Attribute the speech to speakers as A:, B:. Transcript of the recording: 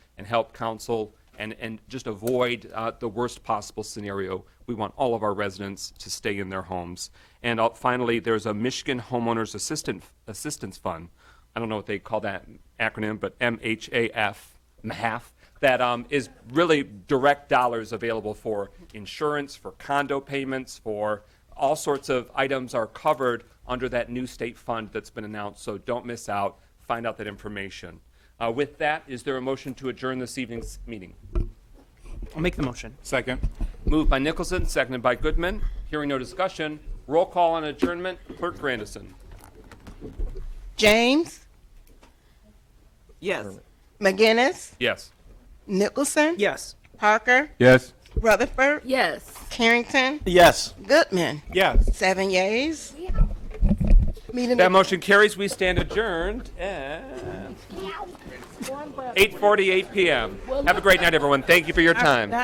A: and help council and, and just avoid uh, the worst possible scenario. We want all of our residents to stay in their homes. And uh, finally, there's a Michigan Homeowners Assistant, Assistance Fund. I don't know what they call that acronym, but MHAF, MHAF that um, is really direct dollars available for insurance, for condo payments, for all sorts of items are covered under that new state fund that's been announced. So don't miss out. Find out that information. Uh, with that, is there a motion to adjourn this evening's meeting?
B: I'll make the motion.
C: Second.
A: Moved by Nicholson, seconded by Goodman. Hearing no discussion, roll call on adjournment. Clerk Grandison.
D: James,
B: Yes.
D: McGinnis,
A: Yes.
D: Nicholson,
B: Yes.
D: Parker,
C: Yes.
D: Rutherford,
E: Yes.
D: Carrington,
C: Yes.
D: Goodman.
C: Yes.
D: Seven yeas. Meeting
A: That motion carries. We stand adjourned at 8:48 p.m. Have a great night, everyone. Thank you for your time.